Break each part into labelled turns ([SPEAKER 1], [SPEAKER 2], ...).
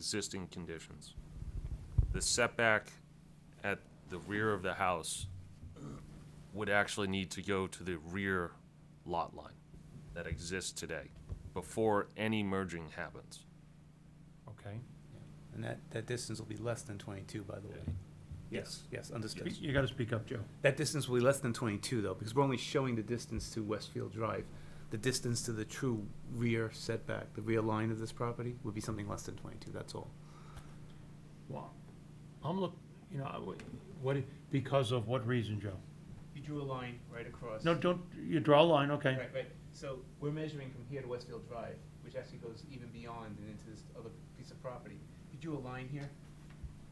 [SPEAKER 1] existing conditions. The setback at the rear of the house would actually need to go to the rear lot line that exists today before any merging happens.
[SPEAKER 2] Okay.
[SPEAKER 3] And that, that distance will be less than twenty-two, by the way.
[SPEAKER 2] Yes.
[SPEAKER 3] Yes, understood.
[SPEAKER 2] You gotta speak up, Joe.
[SPEAKER 3] That distance will be less than twenty-two, though, because we're only showing the distance to Westfield Drive. The distance to the true rear setback, the rear line of this property, would be something less than twenty-two, that's all.
[SPEAKER 2] Well, I'm look, you know, I would- what, because of what reason, Joe?
[SPEAKER 3] You drew a line right across.
[SPEAKER 2] No, don't, you draw a line, okay.
[SPEAKER 3] right. So we're measuring from here to Westfield Drive, which actually goes even beyond and into this other piece of property. You drew a line here.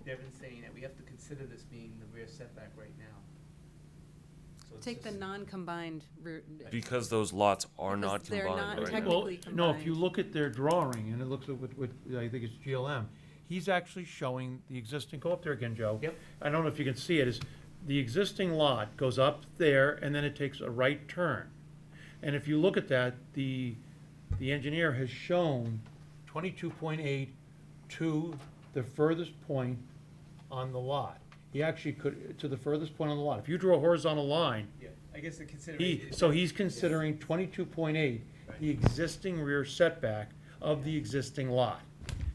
[SPEAKER 3] Devin's saying that we have to consider this being the rear setback right now.
[SPEAKER 4] Take the non-combined route.
[SPEAKER 1] Because those lots are
[SPEAKER 4] Because
[SPEAKER 1] not
[SPEAKER 4] they're not
[SPEAKER 1] combined right now.
[SPEAKER 2] Well,
[SPEAKER 4] Technically
[SPEAKER 2] no, if you
[SPEAKER 4] combined.
[SPEAKER 2] look at their drawing, and it looks at what, what, I think it's GLM, he's actually showing the existing, go up there again, Joe.
[SPEAKER 3] Yep.
[SPEAKER 2] I don't know if you can see it, is the existing lot goes up there, and then it takes a right turn. And if you look at that, the, the engineer has shown twenty-two point eight to the furthest point on the lot. He actually could, to the furthest point on the lot. If you draw a horizontal line,
[SPEAKER 3] Yeah, I guess the
[SPEAKER 2] he,
[SPEAKER 3] consideration.
[SPEAKER 2] so he's considering twenty-two point eight, the existing rear setback of the existing lot.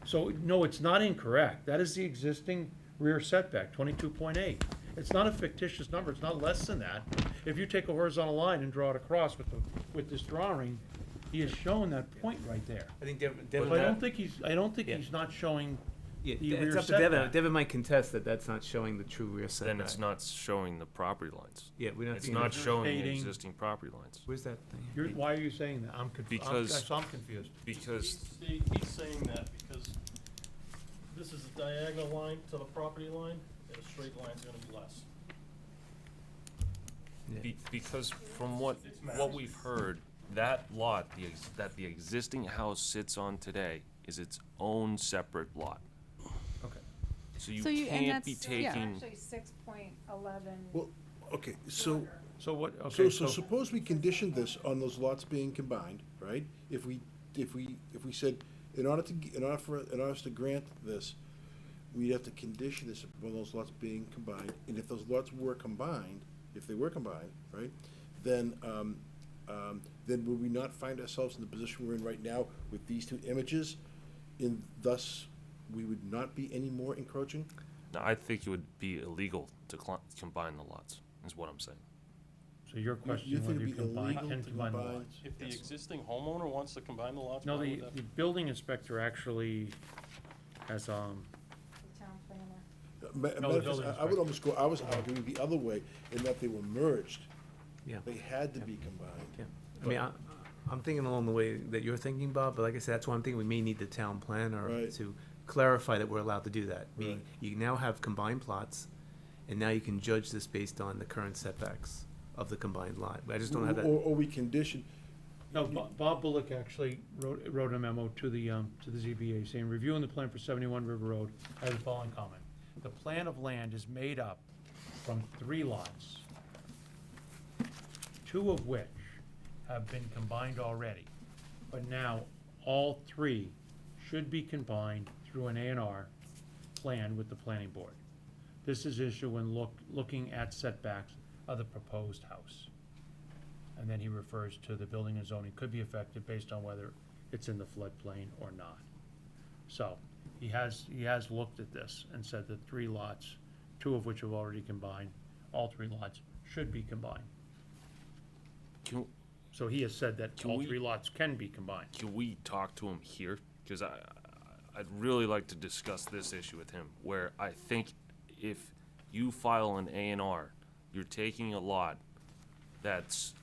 [SPEAKER 2] So, no, it's not incorrect, that is the existing rear setback, twenty-two point eight. It's not a fictitious number, it's not less than that. If you take a horizontal line and draw it across with the, with this drawing, he is showing that point right there.
[SPEAKER 3] I think Devin,
[SPEAKER 2] So I don't think he's, I don't think
[SPEAKER 3] Yeah.
[SPEAKER 2] he's not showing,
[SPEAKER 3] Yeah,
[SPEAKER 2] the
[SPEAKER 3] it's
[SPEAKER 2] rear
[SPEAKER 3] up to Devin.
[SPEAKER 2] setback.
[SPEAKER 3] Devin might contest that that's not showing the true rear setback.
[SPEAKER 1] Then it's not showing the property lines.
[SPEAKER 3] Yeah, we don't.
[SPEAKER 1] It's
[SPEAKER 3] think
[SPEAKER 1] not
[SPEAKER 3] that's-
[SPEAKER 1] showing the
[SPEAKER 2] Rotating.
[SPEAKER 1] existing property lines.
[SPEAKER 3] Where's that
[SPEAKER 2] you're,
[SPEAKER 3] thing?
[SPEAKER 2] why are you saying that? I'm confused, I'm,
[SPEAKER 1] Because-
[SPEAKER 2] I'm confused.
[SPEAKER 1] Because
[SPEAKER 5] He's, he's saying that because this is a diagonal line to the property line, and a straight line's gonna be less.
[SPEAKER 1] Be- Because from what, what we've heard, that lot, the, ex- that the existing house sits on today is its own separate lot.
[SPEAKER 2] Okay.
[SPEAKER 1] So you
[SPEAKER 4] So you- and
[SPEAKER 1] can't be
[SPEAKER 4] that's- yeah.
[SPEAKER 1] taking,
[SPEAKER 6] Actually, six point eleven.
[SPEAKER 7] Well, okay, so,
[SPEAKER 2] So what, okay,
[SPEAKER 7] so, so suppose we conditioned this on those lots being combined, right? If we, if we, if we said, in order to, g- in order for, in order to grant this, we'd have to condition this upon those lots being combined, and if those lots were combined, if they were combined, right? Then, um, um, then would we not find ourselves in the position we're in right now with these two images? And thus, we would not be any more encroaching?
[SPEAKER 1] No, I think it would be illegal to cl- combine the lots, is what I'm saying.
[SPEAKER 2] so your
[SPEAKER 7] You- you
[SPEAKER 2] question,
[SPEAKER 7] think
[SPEAKER 2] whether
[SPEAKER 7] it'd
[SPEAKER 2] you
[SPEAKER 7] be
[SPEAKER 2] combine,
[SPEAKER 7] illegal
[SPEAKER 2] can
[SPEAKER 7] to
[SPEAKER 2] combine the
[SPEAKER 7] combine-
[SPEAKER 2] lots.
[SPEAKER 5] If the existing homeowner wants to combine the lots, why
[SPEAKER 2] No, the,
[SPEAKER 5] would that?
[SPEAKER 2] the building inspector actually has, um,
[SPEAKER 6] The town planner.
[SPEAKER 7] Ma-
[SPEAKER 2] No, the
[SPEAKER 7] matter of
[SPEAKER 2] building
[SPEAKER 7] fact, I- I
[SPEAKER 2] inspector.
[SPEAKER 7] would almost go, I was arguing the other way, in that they were merged.
[SPEAKER 3] Yeah.
[SPEAKER 7] They had to be combined.
[SPEAKER 3] Yeah. I mean, I, I'm thinking along the way that you're thinking, Bob, but like I said, that's why I'm thinking we may need the town planner
[SPEAKER 7] Right.
[SPEAKER 3] to clarify that we're allowed to do that. Meaning,
[SPEAKER 7] Right.
[SPEAKER 3] you now have combined plots, and now you can judge this based on the current setbacks of the combined lot. I just don't have
[SPEAKER 7] Or,
[SPEAKER 3] that,
[SPEAKER 7] or we condition,
[SPEAKER 2] No, Bo- Bob Bullock actually wrote, wrote a memo to the, um, to the ZBA saying, reviewing the plan for seventy-one River Road, I have the following comment. The plan of land is made up from three lots, two of which have been combined already. But now, all three should be combined through an A and R plan with the planning board. This is issue when look, looking at setbacks of the proposed house. And then he refers to the building and zoning could be affected based on whether it's in the floodplain or not. So, he has, he has looked at this and said that three lots, two of which have already combined, all three lots should be combined.
[SPEAKER 1] Can,
[SPEAKER 2] So he has said that
[SPEAKER 1] Can
[SPEAKER 2] all
[SPEAKER 1] we-
[SPEAKER 2] three lots can be combined.
[SPEAKER 1] can we talk to him here? Because I, I'd really like to discuss this issue with him, where I think if you file an A and R, you're taking a lot that's,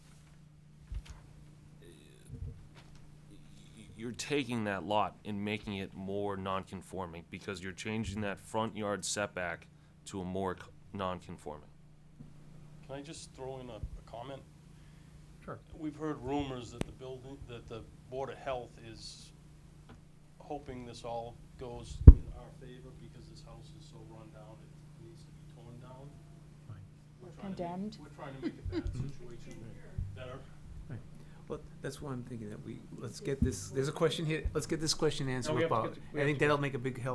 [SPEAKER 1] you're taking that lot and making it more non-conforming, because you're changing that front yard setback to a more c- non-conforming.
[SPEAKER 5] Can I just throw in a, a comment?
[SPEAKER 2] Sure.
[SPEAKER 5] We've heard rumors that the building, that the Board of Health is hoping this all goes in our favor because this house is so run down, it needs to be torn down. We're trying to make-
[SPEAKER 6] Condemned.
[SPEAKER 5] We're trying to make a bad
[SPEAKER 2] Mm-hmm.
[SPEAKER 5] situation better.
[SPEAKER 3] well, that's why I'm thinking that we, let's get this, there's a question here, let's get this question answered
[SPEAKER 2] we have
[SPEAKER 3] with
[SPEAKER 2] to get
[SPEAKER 3] Bob.
[SPEAKER 2] the- we
[SPEAKER 3] I
[SPEAKER 2] have
[SPEAKER 3] think
[SPEAKER 2] to get-
[SPEAKER 3] that'll make a big help